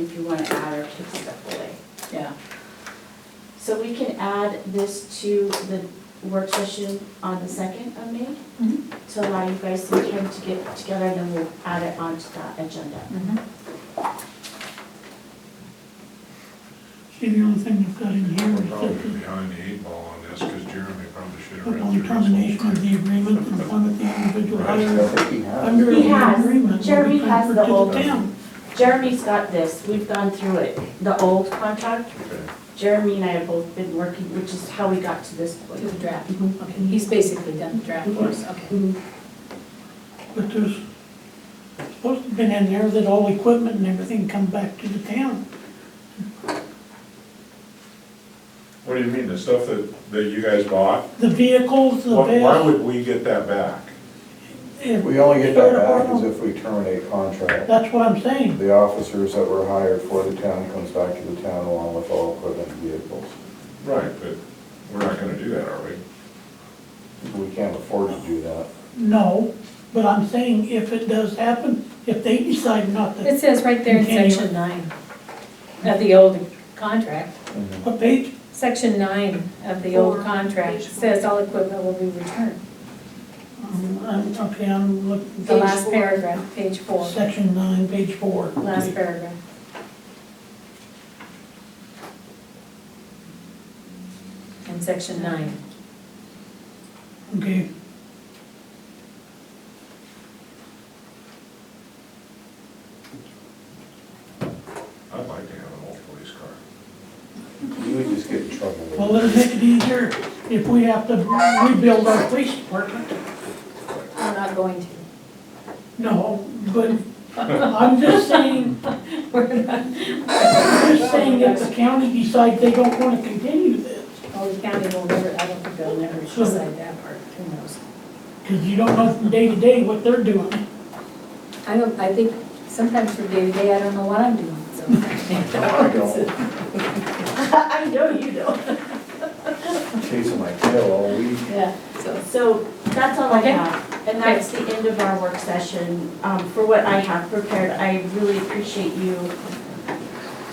if you wanna add or take stuff away. yeah. So we can add this to the work session on the second of May Mhm. to allow you guys some time to get together and then we'll add it onto the agenda. See, the only thing I've got in here We're is probably that behind the eight ball on this, because Jeremy probably should have the read upon through this termination whole of thing. the agreement, and upon the individual hire Under under He the has. agreement. Jeremy has the whole- Will be transferred Jeremy's got this, we've gone through it, the old contract, Okay. Jeremy and I have both been working, which is how we got to this Do point. the draft, Mhm. okay, he's basically done the draft for us, okay. Mhm. to the town, but there's supposed to have been in there that all equipment and everything come back to the town. What do you mean, the stuff that, that you guys bought? The vehicles, the Why why vest. would we get that back? if- We only get that back is Department- if we terminate contract. That's what I'm saying, The officers that were hired for the town comes back to the town along with all equipment and vehicles. Right, but we're not gonna do that, are we? We can't afford to do that. no, but I'm saying if it does happen, if they decide not It to, says right there in Continue. section nine of the old contract, what page? section nine of the old Four, contract page four. says all equipment will be returned. Um, I'm, okay, I'm looking. The last four. paragraph, page four, Section nine, page four. last paragraph. In section nine. Okay. I'd like to have an old police car. You would just get in trouble. with Well, it'll make it easier if we have to rebuild our police department. We're not going to. No, but I'm just saying, We're not. I'm just saying if the county decides they don't wanna continue this, Oh, the county will never, I don't think they'll never decide that part, who knows? cause you don't know from day to day what they're doing. I don't, I think sometimes from day to day, I don't know what I'm doing, so. I don't. I know you don't. Chasing my tail all week. Yeah, so. So that's all I Okay. have, and that's the end of our work session. Um, For what I have prepared, I really appreciate you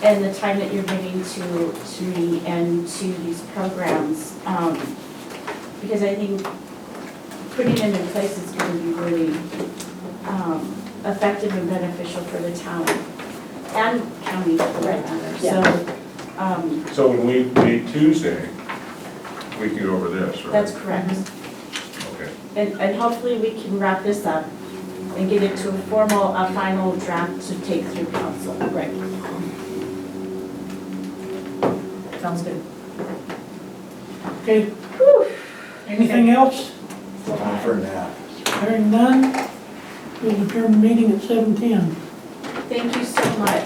and the time that you're giving to, to me and to these programs. um, Because I think putting them in place is going to be really um, effective and beneficial for the town and county for that matter. So um, So when we meet Tuesday, we can go over this, right? that's correct. Okay. And, and hopefully we can wrap this up and get it to a formal, a final draft to take through council. Right. Sounds good. Okay? Anything else? Time for a nap. Hearing none, we'll adjourn the meeting at seven ten. Thank you so much.